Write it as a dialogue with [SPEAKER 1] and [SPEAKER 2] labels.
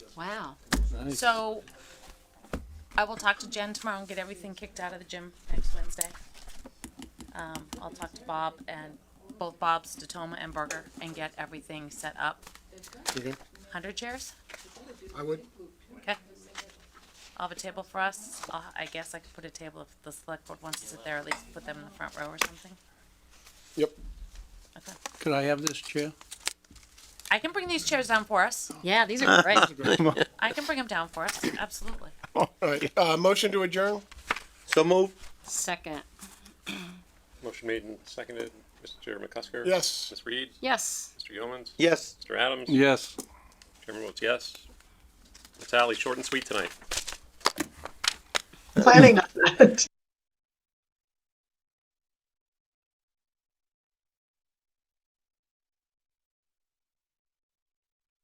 [SPEAKER 1] Wow. So I will talk to Jen tomorrow and get everything kicked out of the gym next Wednesday. Um, I'll talk to Bob and both Bob's, Datoma and Berger, and get everything set up.
[SPEAKER 2] Okay.
[SPEAKER 1] Hundred chairs?
[SPEAKER 2] Mm-hmm. I would.
[SPEAKER 1] Okay. I'll have a table for us. I'll, I guess I could put a table if the select board wants to sit there, at least put them in the front row or something.
[SPEAKER 2] Yep.
[SPEAKER 1] Okay.
[SPEAKER 3] Could I have this chair?
[SPEAKER 1] I can bring these chairs down for us.
[SPEAKER 4] Yeah, these are great.
[SPEAKER 1] I can bring them down for us, absolutely.
[SPEAKER 2] All right. Uh, motion to adjourn.
[SPEAKER 5] So move.
[SPEAKER 4] Second.
[SPEAKER 6] Motion made and seconded. Mr. McCusker?
[SPEAKER 2] Yes.
[SPEAKER 6] Ms. Reed?
[SPEAKER 4] Yes.
[SPEAKER 6] Mr. Yeomans?
[SPEAKER 5] Yes.
[SPEAKER 6] Mr. Adams?
[SPEAKER 3] Yes.
[SPEAKER 6] Chairman votes yes. Natalie, short and sweet tonight.
[SPEAKER 7] planning on that.